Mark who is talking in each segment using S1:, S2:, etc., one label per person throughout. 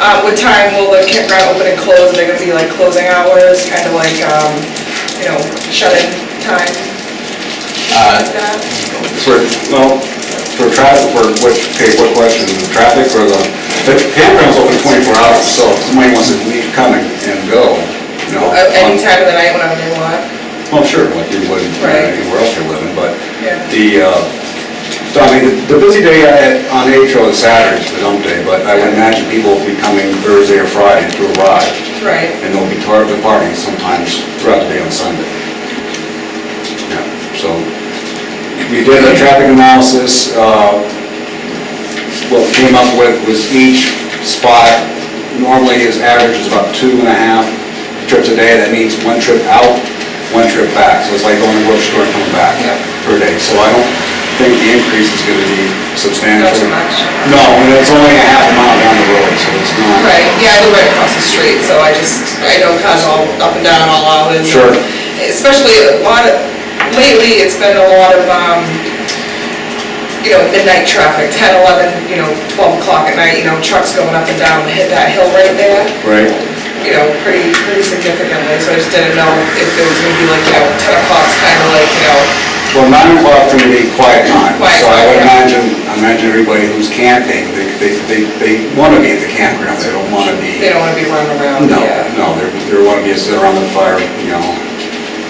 S1: Uh, what time will the campground open and close? Are they gonna be like closing hours, kind of like, um, you know, shut-in time?
S2: Uh,
S1: like that?
S3: For, no, for traffic, for which, okay, what question, the traffic or the, the campground's open twenty-four hours, so if somebody wants to leave, come and and go, you know.
S1: Uh, Any time of the night when I'm in lot?
S3: Well, sure, like you would uh,
S1: Right.
S3: anywhere else you're living, but
S1: Yeah.
S3: the, uh, so I mean, the busy day I had on H.O. is Saturday, the dump day, but I would imagine people will be coming Thursday or Friday to arrive,
S1: Right.
S3: and they'll be part of the party sometimes throughout the day on Sunday. Yeah, So, we did a traffic analysis, uh, what we came up with was each spot, normally his average is about two and a half trips a day, that means one trip out, one trip back, so it's like going to the grocery store and coming back
S1: Yeah.
S3: per day, so I don't think the increase is gonna be substantial.
S1: Not too much.
S3: No, and it's only a half a mile down the road, so it's not.
S1: Right, yeah, I live right across the street, so I just, I know cars all up and down all hours.
S3: Sure.
S1: Especially a lot of, lately, it's been a lot of, um, you know, midnight traffic, 10, 11, you know, 12 o'clock at night, you know, trucks going up and down, hit that hill right there,
S3: Right,
S1: you know, pretty, pretty significantly, so I just didn't know if there was gonna be like, you know, 10 o'clock's kind of like, you know,
S3: well, nine o'clock for me, quiet time,
S1: Quiet
S3: so I
S1: time,
S3: would
S1: yeah.
S3: imagine, I imagine everybody who's camping, they, they, they, they wanna be at the campground, they don't wanna be.
S1: they don't wanna be running around,
S3: No,
S1: yeah.
S3: no, there, there want to be a sit around the fire, you know.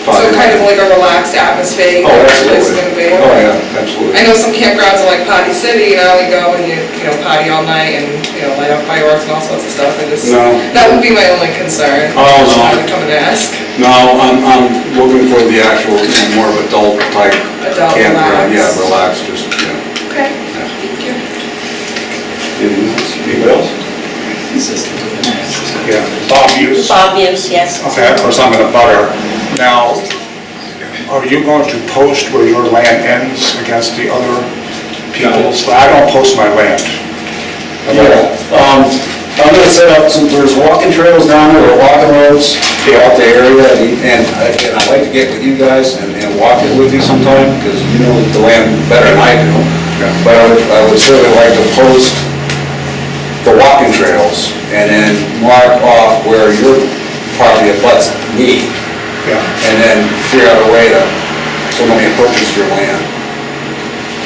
S1: So
S3: fire.
S1: kind of like a relaxed atmosphere. you
S3: Oh,
S1: know,
S3: absolutely.
S1: it's gonna be-
S3: Oh, yeah, absolutely.
S1: I know some campgrounds are like potty city, you know, you go and you, you know, potty all night and, you know, light up fireworks and all sorts of stuff, and just,
S3: No.
S1: that would be my only concern.
S3: Oh, no.
S1: I would come and ask.
S3: No, I'm, I'm looking for the actual, you know, more of adult type
S1: Adult,
S3: campground. Yeah,
S1: relaxed.
S3: relax, just, yeah.
S1: Okay,
S3: yeah.
S1: thank you.
S3: Anything else? Anybody else?
S4: Yeah, Bob Hughes,
S5: Bob Hughes, yes.
S4: okay, of course, I'm in a butter. Now, are you going to post where your land ends against the other people's? I don't post my land.
S3: Yeah, um, I'm gonna set up some, there's walking trails down there, or walking roads throughout the area, and- and, I- and I'd like to get with you guys and, and walk it with you sometime, because you know the land better than I do. But I would, I would certainly like to post the walking trails, and then mark off where your property abuts me,
S4: Yeah,
S3: and then figure out a way to, somebody approaches your land.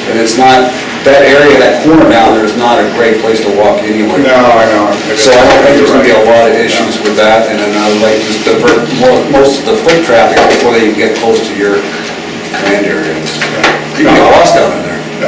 S3: And it's not, that area, that corner down there is not a great place to walk anyway.
S4: no, I know.
S3: So I don't think there's gonna be a lot of issues with that, and then I would like to divert mo- most of the foot traffic before they even get close to your land area. You can get lost down in there.
S4: Uh,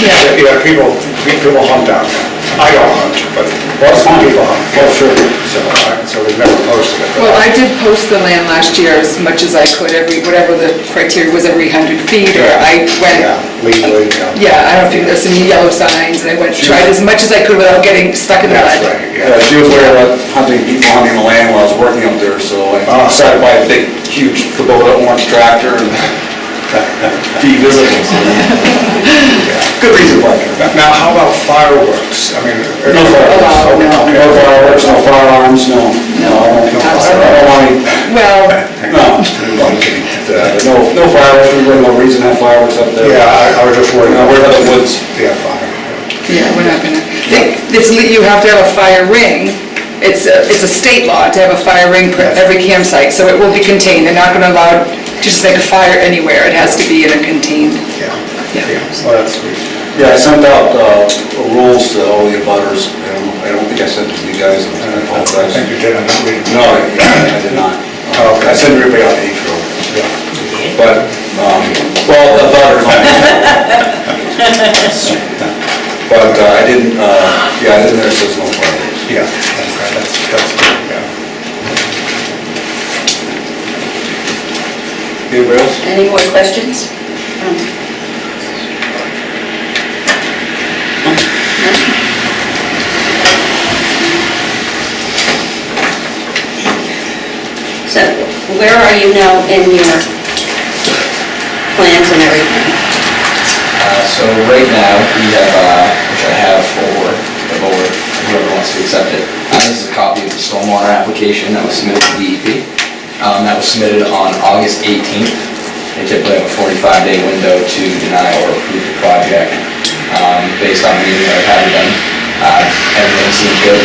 S4: Yeah, Yeah, people, people hunt down there. I don't hunt, but
S3: That's fine.
S4: people hunt.
S3: Oh, sure.
S4: So, I- so we've never posted it.
S6: Well, I did post the land last year as much as I could, every, whatever the criteria was, every hundred feet, or I
S4: Yeah,
S6: went,
S4: legally, yeah.
S6: yeah, I don't think there's any yellow signs, and I went, tried as much as I could without getting stuck in the
S4: That's
S6: mud.
S4: right,
S3: Yeah,
S4: yeah.
S3: Uh, she was worried about hunting, people hunting the land while I was working up there, so I
S4: Oh.
S3: decided to buy a big, huge Kubota orange tractor and be visible. so. Good reason why.
S4: Now- Now, how about fireworks? I mean.
S3: No fireworks,
S6: no.
S3: no fireworks, no firearms, no, no, I don't, no fire- I don't want any
S6: Well,
S3: No, I'm kidding. Uh, No no fireworks, we wouldn't, no reason to have fireworks up there.
S4: Yeah, I- I was just worried.
S3: Uh, We're in the woods.
S4: Yeah, fire.
S6: yeah, we're not gonna, they- it's, le- you have to have a fire ring, it's, a- it's a state law to have a fire ring per every campsite, so it will be contained, they're not gonna allow, to just like a fire anywhere, it has to be in a contained,
S4: Yeah,
S6: Yeah.
S4: yeah, well, that's sweet.
S3: Yeah, I sent out uh, rules to all the abutters. I don't- I don't think I sent it to you guys,
S4: Uh,
S3: I
S4: I
S3: apologize.
S4: think you did, I'm not reading.
S3: No, I I did not.
S4: Oh, okay.
S3: I sent everybody out to each room.
S4: Yeah.
S3: But, um, well, the butters. But uh, I didn't, uh, yeah, I didn't, there's just no fireworks.
S4: Yeah, okay, that's, that's, good, yeah.
S3: Anybody else?
S5: Any more questions? So where are you now in your plans and everything?
S7: Uh, So right now, we have, uh, which I have for the board, whoever wants to accept it. Uh, This is a copy of the stormwater application that was submitted to DEP. Um, That was submitted on August 18th. They typically have a 45-day window to deny or approve the project um, based on the meeting that I've had with them. Uh, Everything seems good.